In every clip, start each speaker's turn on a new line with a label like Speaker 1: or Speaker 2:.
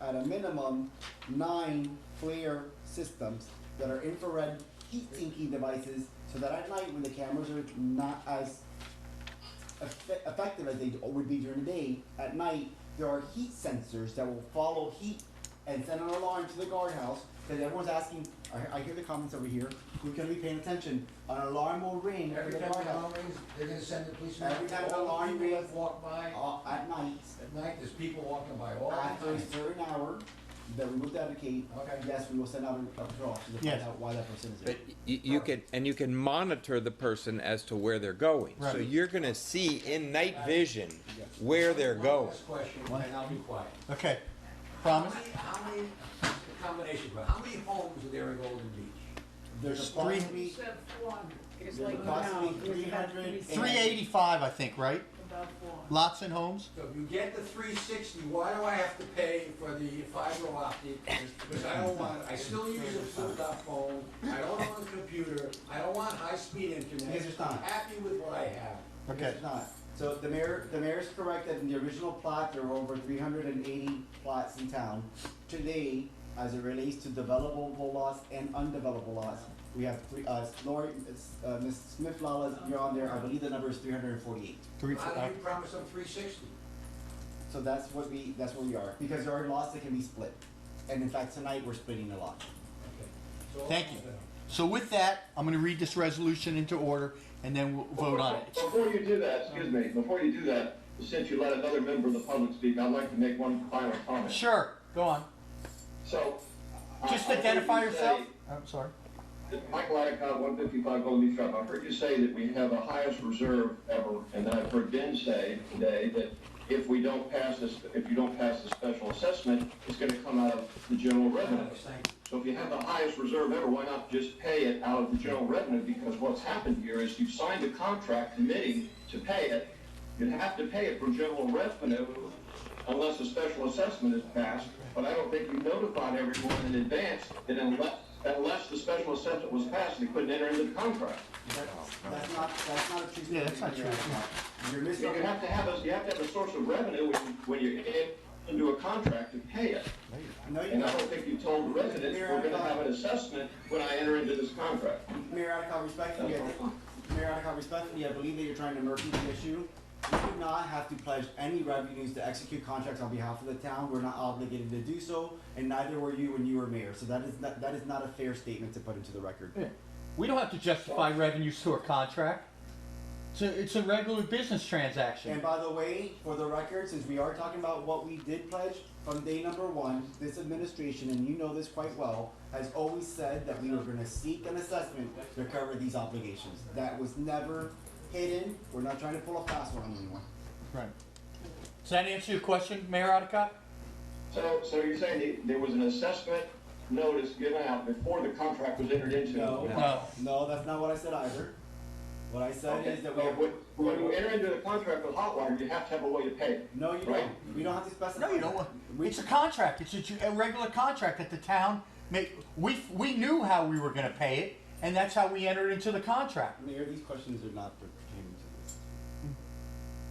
Speaker 1: at a minimum, nine FLIR systems that are infrared heat sinking devices, so that at night when the cameras are not as effe- effective as they would be during the day, at night, there are heat sensors that will follow heat and send an alarm to the guardhouse, because everyone's asking, I, I hear the comments over here, who's gonna be paying attention? An alarm will ring for
Speaker 2: Every
Speaker 1: the
Speaker 2: time the alarm
Speaker 1: guardhouse,
Speaker 2: rings, they're gonna send the policeman.
Speaker 1: Every time the
Speaker 2: All
Speaker 1: alarm
Speaker 2: people that
Speaker 1: rings-
Speaker 2: Walk by
Speaker 1: uh, at night.
Speaker 2: at night, there's people walking by all the
Speaker 1: After a
Speaker 2: time.
Speaker 1: certain hour, that we will dedicate,
Speaker 2: Okay.
Speaker 1: yes, we will send out a a patrol officer to find
Speaker 3: Yes.
Speaker 1: out why that person is
Speaker 4: But
Speaker 1: there.
Speaker 4: you, you could, and you can monitor the person as to where they're going. So
Speaker 3: Right.
Speaker 4: you're gonna see in night vision
Speaker 1: Yes.
Speaker 4: where they're
Speaker 2: One
Speaker 4: going.
Speaker 2: last question,
Speaker 3: One-
Speaker 2: and I'll be quiet.
Speaker 3: Okay,
Speaker 2: How
Speaker 3: promise?
Speaker 2: many, how many, combination, but how many homes are there in Golden Beach?
Speaker 1: There's
Speaker 3: three-
Speaker 1: approximately,
Speaker 5: Except four hundred.
Speaker 1: there's
Speaker 5: It's like now,
Speaker 1: approximately
Speaker 5: it's
Speaker 1: three
Speaker 5: about
Speaker 1: hundred.
Speaker 3: Three eighty-five, I think, right?
Speaker 5: About four hundred.
Speaker 3: Lots and homes?
Speaker 2: So if you get the three sixty, why do I have to pay for the fiber optic? Because I don't want, I still use a flip-top phone, I don't own a computer, I don't want high-speed internet.
Speaker 1: Mr. Stein.
Speaker 2: I'm happy with what I have.
Speaker 3: Okay.
Speaker 1: It's not. So the mayor, the mayor's correct that in the original plot, there were over three hundred and eighty plots in town. Today, as it relates to developable lots and undevelopable lots, we have three, uh, Lori, uh, Ms. Smith Lawless, you're on there, I believe the number is three hundred and forty-eight.
Speaker 3: Three,
Speaker 2: How
Speaker 3: uh,
Speaker 2: do you promise them three sixty?
Speaker 1: So that's what we, that's where we are, because there are lots that can be split. And in fact, tonight, we're splitting a lot.
Speaker 3: Thank you. So with that, I'm gonna read this resolution into order and then we'll vote on it.
Speaker 6: Before you do that, excuse me, before you do that, since you let another member of the public speak, I'd like to make one final comment.
Speaker 3: Sure, go on.
Speaker 6: So. I-
Speaker 3: Just
Speaker 6: I heard
Speaker 3: identify
Speaker 6: you
Speaker 3: yourself.
Speaker 6: say-
Speaker 3: I'm sorry.
Speaker 6: Michael Adicott, one fifty-five Golden Beach Drive. I heard you say that we have the highest reserve ever, and then I've heard Ben say today that if we don't pass this, if you don't pass the special assessment, it's gonna come out of the general revenue.
Speaker 2: Thank you.
Speaker 6: So if you have the highest reserve ever, why not just pay it out of the general revenue? Because what's happened here is you've signed a contract committing to pay it. You'd have to pay it from general revenue unless a special assessment is passed. But I don't think you notified everyone in advance that unless, unless the special assessment was passed, they couldn't enter into the contract.
Speaker 1: That's not, that's not a true.
Speaker 3: Yeah, that's not
Speaker 1: statement.
Speaker 3: true.
Speaker 1: You're
Speaker 6: You
Speaker 1: misrepresenting.
Speaker 6: have to have a, you have to have a source of revenue when, when you enter into a contract to pay it.
Speaker 1: No, you
Speaker 6: And I
Speaker 1: don't.
Speaker 6: don't think you told the residents, we're gonna have an assessment when I enter into this contract.
Speaker 1: Mayor Adicott, respectfully, I think- Mayor Adicott, respectfully, I believe that you're trying to murky the issue. We do not have to pledge any revenues to execute contracts on behalf of the town. We're not obligated to do so, and neither were you when you were mayor. So that is not, that is not a fair statement to put into the record.
Speaker 3: Yeah. We don't have to justify revenues to a contract. It's a, it's a regular business
Speaker 1: And
Speaker 3: transaction.
Speaker 1: by the way, for the record, since we are talking about what we did pledge from day number one, this administration, and you know this quite well, has always said that we were gonna seek an assessment to cover these obligations. That was never hidden. We're not trying to pull a fast one on anyone.
Speaker 3: Right. Does that answer your question, Mayor Adicott?
Speaker 6: So, so you're saying the- there was an assessment notice given out before the contract was entered into?
Speaker 1: No.
Speaker 3: No.
Speaker 1: No, that's not what I said either. What I said
Speaker 6: Okay,
Speaker 1: is
Speaker 6: so
Speaker 1: that we have.
Speaker 6: when, when you enter into the contract with Hotwire, you have to have a way to pay it.
Speaker 1: No, you don't.
Speaker 6: Right.
Speaker 1: We don't have to specify.
Speaker 3: No, you don't want,
Speaker 1: We-
Speaker 3: it's a contract, it's a, ju- a regular contract that the town make, we, we knew how we were gonna pay it, and that's how we entered into the contract.
Speaker 1: Mayor, these questions are not pertaining to this.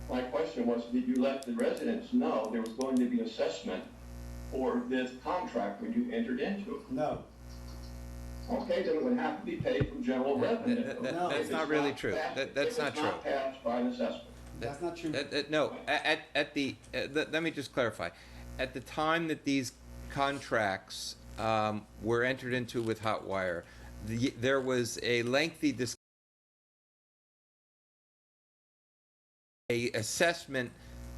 Speaker 6: My question was, did you let the residents know there was going to be assessment for this contract when you entered into it?
Speaker 1: No,
Speaker 6: Okay, then it would have to be paid from general revenue.
Speaker 4: that- that-
Speaker 1: that's
Speaker 6: If it's
Speaker 4: not really true.
Speaker 6: passed-
Speaker 4: That- that's not
Speaker 6: If it's not
Speaker 4: true.
Speaker 6: passed by an assessment.
Speaker 1: that's not true.
Speaker 4: At- at- Uh, no, a- at, at the, uh, let, let me just clarify. At the time that these contracts um, were entered into with Hotwire, the, there was a lengthy dis- a assessment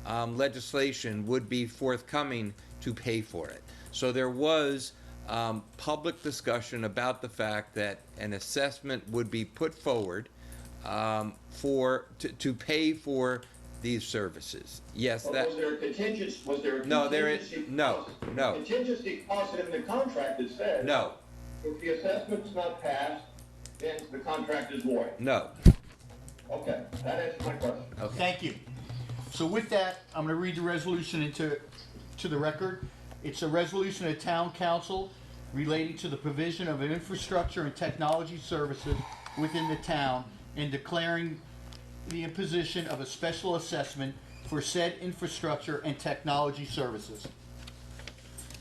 Speaker 4: um, legislation would be forthcoming to pay for it. So there was um, public discussion about the fact that an assessment would be put forward um, for to, to pay for these services. Yes,
Speaker 6: But
Speaker 4: that
Speaker 6: Oh, was there a contingency, was there a contingency?
Speaker 4: No, there is- no,
Speaker 6: clause-
Speaker 4: no.
Speaker 6: Contingency clause in the contract that says.
Speaker 4: no,
Speaker 6: If the assessment's not passed, then the contract is void.
Speaker 4: no.
Speaker 6: Okay, that answers my question.
Speaker 3: Thank you. So with that, I'm gonna read the resolution into, to the record. It's a resolution of town council relating to the provision of infrastructure and technology services within the town and declaring the imposition of a special assessment for said infrastructure and technology services.